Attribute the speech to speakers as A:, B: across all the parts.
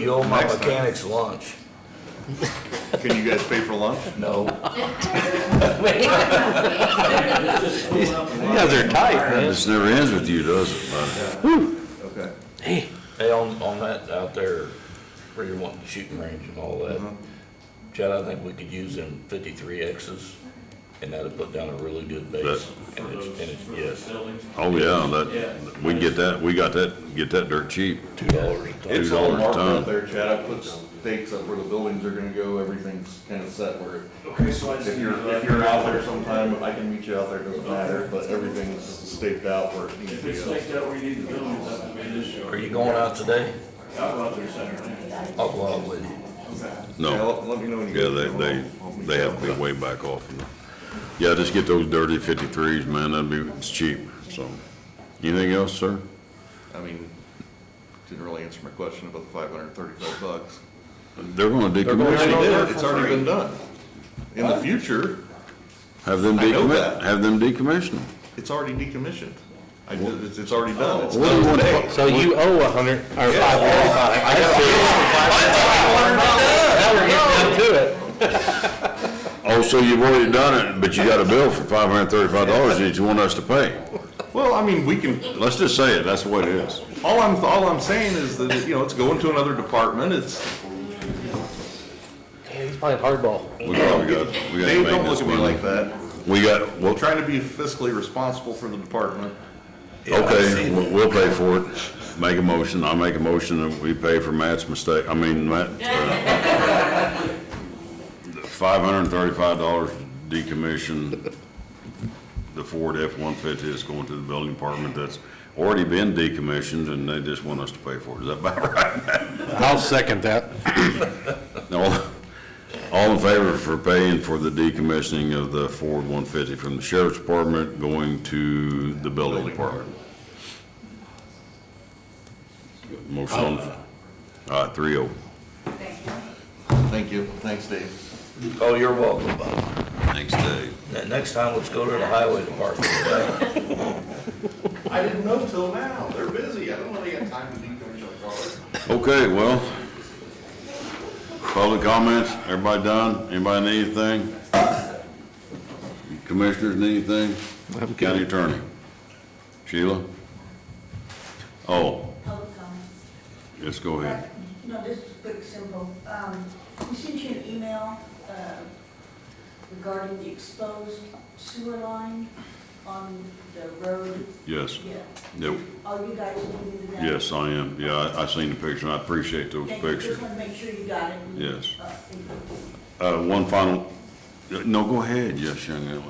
A: You owe my
B: Next time.
A: mechanics lunch.
B: Can you guys pay for lunch?
A: No.
C: You guys are tight, man.
D: This never ends with you, does it, bud?
B: Okay.
A: Hey, on, on that out there, where you're wanting the shooting range and all that,
B: Mm-hmm.
A: Chad, I think we could use them fifty-three X's, and that'd put down a really good base.
E: For
A: And
E: those,
A: it's, and it's,
E: for those
A: yes,
E: buildings.
D: Oh, yeah, that, we can get that, we got that, get that dirt cheap.
A: two dollars a ton.
B: It's all
D: $2 a
B: marked
D: ton.
B: up there, Chad. I put stakes up where the buildings are gonna go. Everything's kind of set where,
E: Okay, so I uh, just
B: if
E: need
B: you're, if you're out there sometime, I can meet you out there, doesn't matter, but everything's staked out where it needs
E: If
B: to
E: it's
B: go.
E: like that, we need the buildings up to be this
A: Are
E: year.
A: you going out today?
E: I'll go out there Saturday.
A: I'll go out with you.
B: Yeah,
D: No,
B: let- Let me know when you
D: yeah,
B: get
D: they,
B: there.
D: they,
B: I'll- I'll meet
D: they
B: you
D: have
B: out
D: to
B: there.
D: be way back off. from the- Yeah, just get those dirty fifty-threes, man, that'd be, it's cheap, so. Anything else, sir?
B: I mean, didn't really answer my question about the five hundred and thirty-five bucks.
D: They're gonna
B: They
D: decommission it.
B: did. It's already been done. In the future,
D: Have them
B: I know
D: decommission,
B: that.
D: have them decommission them.
B: it's already decommissioned. I, did- it's, it's already done. It's
D: Oh. What do you
B: done
D: want
B: today.
D: to-
C: So you owe a hundred, or
B: Yeah.
C: five forty-five. I Now we're getting down to it.
D: Oh, so you've already done it, but you got a bill for five hundred and thirty-five dollars that you want us to pay.
B: Well, I mean, we can,
D: Let's just say it, that's what it is.
B: all I'm, all I'm saying is that, you know, it's going to another department. It's,
C: Yeah, he's playing hardball.
D: We got, Oh, we got, we got to
B: Dave,
D: make
B: don't look
D: this
B: at me like
D: money.
B: that.
D: We got, well,
B: We're trying to be fiscally responsible for the department.
D: Okay, we'll- we'll pay for it. Make a motion, I'll make a motion that we pay for Matt's mistake, I mean, Matt. uh, Five hundred and thirty-five dollars decommission. The Ford F-150 is going to the building department that's already been decommissioned and they just want us to pay for it. Is that about right?
C: I'll second that.
D: All, all in favor for paying for the decommissioning of the Ford 150 from the sheriff's department going to the building department? Motion on, all right, three oh.
B: Thank you. Thanks, Dave.
A: Oh, you're welcome, Bob.
D: Thanks, Dave.
A: Ne- Next time, let's go to the highway department, okay?
B: I didn't know till now. They're busy. I don't know they got time to decommission a car.
D: Okay, well, public comments, everybody done? Anybody need anything? Commissioners need anything? County attorney? Sheila? Oh,
F: Public comments.
D: yes, go ahead.
F: No, just quick, simple. Um, We sent you an email uh, regarding the exposed sewer line on the road.
D: Yes,
F: Yeah.
D: Yep.
F: All you guys needed that?
D: yes, I am. Yeah, I, I seen the picture, and I appreciate those
F: Thank you.
D: pictures.
F: Just want to make sure you got it.
D: Yes.
F: Uh, thank you.
D: Uh, one final, uh, no, go ahead, yes, young lady.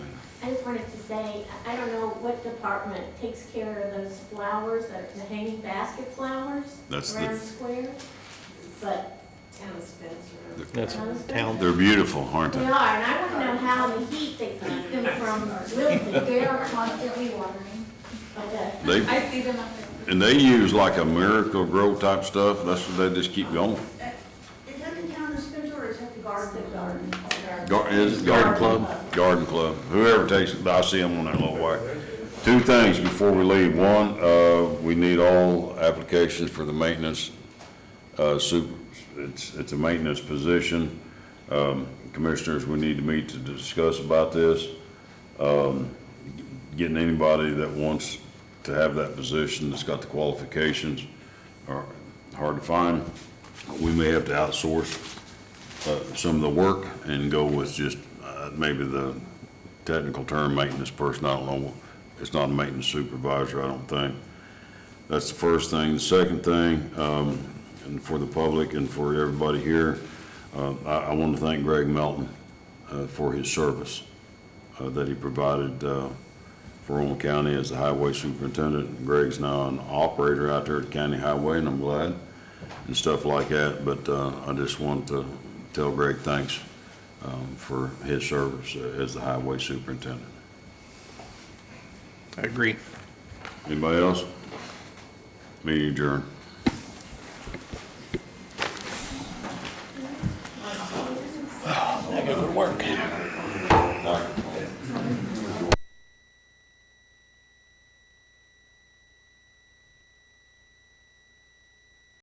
G: I just wanted to say, I I don't know what department takes care of those flowers, that- the hanging basket flowers
D: That's the-
G: around Square, but. Town Spencer.
C: That's town.
D: They're beautiful, aren't
G: They are,
D: they?
G: and I want to know how in the heat they keep them from wilting. They are constantly watering. Okay.
D: They,
G: I see them up there.
D: and they use like a miracle grow type stuff. That's what they just keep going.
F: Is that the town of Spencer or is that the garden? Garden.
D: Gar- is it Garden Club? Garden Club. Whoever takes it, I see them on that little wire. Two things before we leave. One, uh, we need all applications for the maintenance, uh, super, it's, it's a maintenance position. Um, commissioners, we need to meet to discuss about this. Um, getting anybody that wants to have that position, that's got the qualifications, are hard to find. We may have to outsource uh, some of the work and go with just, uh, maybe the technical term, maintenance person, I don't know. It's not a maintenance supervisor, I don't think. That's the first thing. The second thing, um, and for the public and for everybody here, uh, I, I want to thank Greg Melton, uh, for his service, uh, that he provided, uh, for Owen County as the highway superintendent. Greg's now an operator out there at County Highway, and I'm glad and stuff like that, but uh, I just want to tell Greg thanks um, for his service as the highway superintendent.
C: I agree.
D: Anybody else? Meeting adjourned.
C: I gotta go to work.